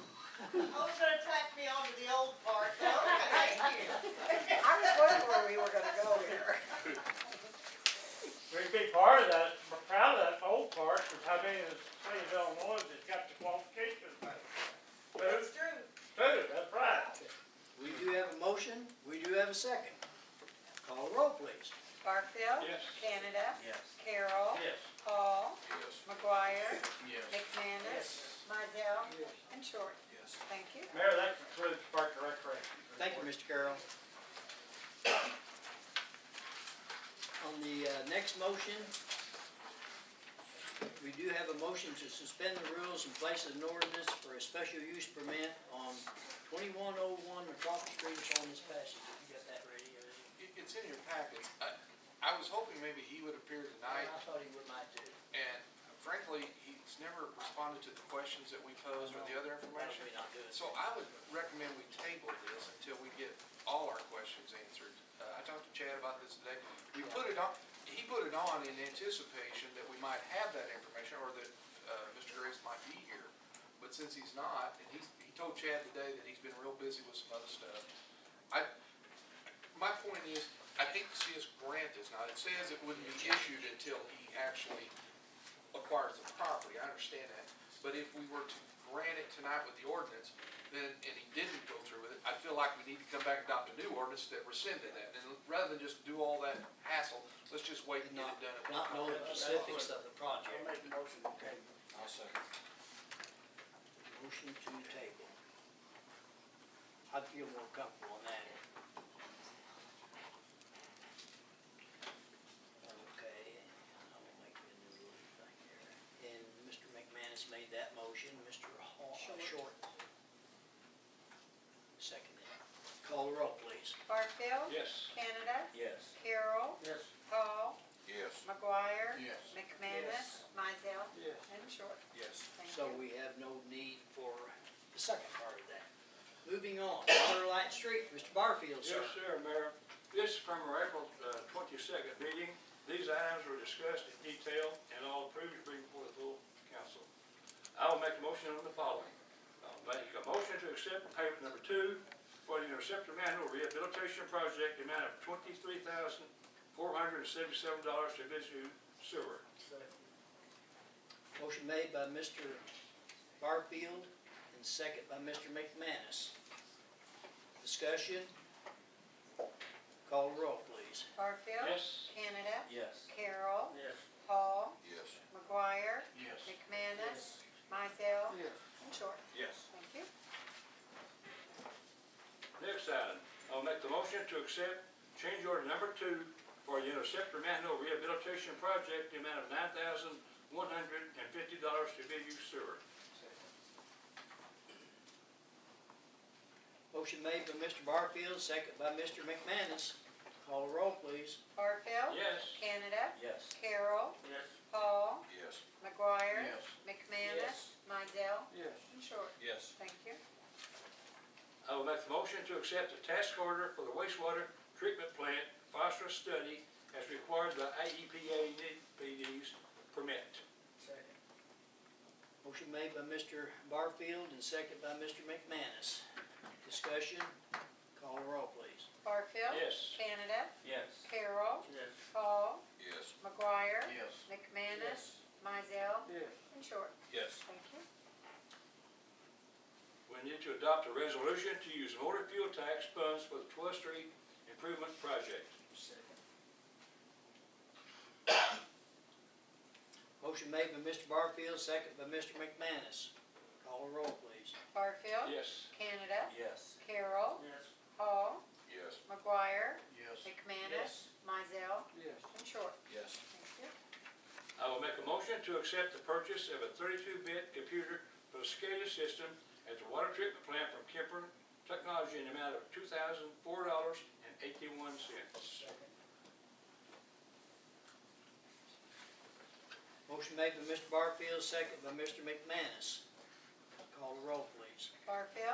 I was gonna tack me onto the old part, but okay, thank you. I was wondering where we were gonna go here. We'd be part of that, we're proud of that old part, because how many of the state of Illinois that's got the qualifications? Two, It's true. two, that's right. We do have a motion, we do have a second. Call the roll, please. Barfield. Yes. Canada. Yes. Carol. Yes. Paul. Yes. McGuire. Yes. McManus. Mydell. And Short. Yes. Thank you. Mayor, that concludes Park and Recreation. Thank you, Mr. Carroll. On the uh, next motion, we do have a motion to suspend the rules and place an ordinance for a special use permit on twenty-one oh one McCoffey Street, it's on this passage, Have you got that ready? or- It, it's in your packet. I, I was hoping maybe he would appear I tonight, thought he would might do. and frankly, he's never responded to the questions that we posed or the other That'll information. be not good. So I would recommend we table this until we get all our questions answered. Uh, I talked to Chad about this today. We put it on, he put it on in anticipation that we might have that information or that uh, Mr. Grace might be here. But since he's not, and he's, he told Chad today that he's been real busy with some other stuff. I, my point is, I hate to see us grant this. Now, it says it wouldn't be issued until he actually acquires the property, I understand that. But if we were to grant it tonight with the ordinance, then, and he didn't go through with it, I feel like we need to come back and adopt a new ordinance that rescinded that. And rather than just do all that hassle, let's just wait and get it done. at one Not time. knowing the specifics of the project. I'll make the motion to table. I'll second. Motion to table. I'd feel more comfortable on that. Okay, I will make the new little thing here. And Mr. McManus made that motion, Mr. Hall, uh, Short. Short. Second it. Call the roll, please. Barfield. Yes. Canada. Yes. Carol. Yes. Paul. Yes. McGuire. Yes. McManus. Mydell. Yes. And Short. Yes. Thank So we you. have no need for the second part of that. Moving on, Water Light Street, Mr. Barfield, sir. Yes, sir, Mayor. This is from our April uh, twenty-second meeting. These items were discussed in detail and all approved to bring before the full council. I will make a motion on the following. I'll make a motion to accept payment number two for the interceptor manhole rehabilitation project, the amount of twenty-three thousand, four hundred and seventy-seven dollars to Visu Sewer. Motion made by Mr. Barfield and second by Mr. McManus. Discussion? Call the roll, please. Barfield. Yes. Canada. Yes. Carol. Yes. Paul. Yes. McGuire. Yes. McManus. Mydell. And Short. Yes. Thank you. Next item, I'll make the motion to accept change order number two for the interceptor manhole rehabilitation project, the amount of nine thousand one hundred and fifty dollars to be used sewer. Motion made by Mr. Barfield, second by Mr. McManus. Call the roll, please. Barfield. Yes. Canada. Yes. Carol. Yes. Paul. Yes. McGuire. Yes. McManus. Mydell. Yes. And Short. Yes. Thank you. I will make the motion to accept the task order for the wastewater treatment plant phosphorus study as required by E AEPA NPD's permit. Motion made by Mr. Barfield and second by Mr. McManus. Discussion? Call the roll, please. Barfield. Yes. Canada. Yes. Carol. Yes. Paul. Yes. McGuire. Yes. McManus. Mydell. Yes. And Short. Yes. Thank you. We need to adopt a resolution to use motor fuel tax funds for the 12th Street Improvement Project. Motion made by Mr. Barfield, second by Mr. McManus. Call the roll, please. Barfield. Yes. Canada. Yes. Carol. Yes. Paul. Yes. McGuire. Yes. McManus. Mydell. Yes. And Short. Yes. Thank you. I will make a motion to accept the purchase of a thirty-two bit computer for the SCADA system at the water treatment plant from Kemper Technology in the amount of two thousand four dollars and eighty-one cents. Motion made by Mr. Barfield, second by Mr. McManus. Call the roll, please. Barfield.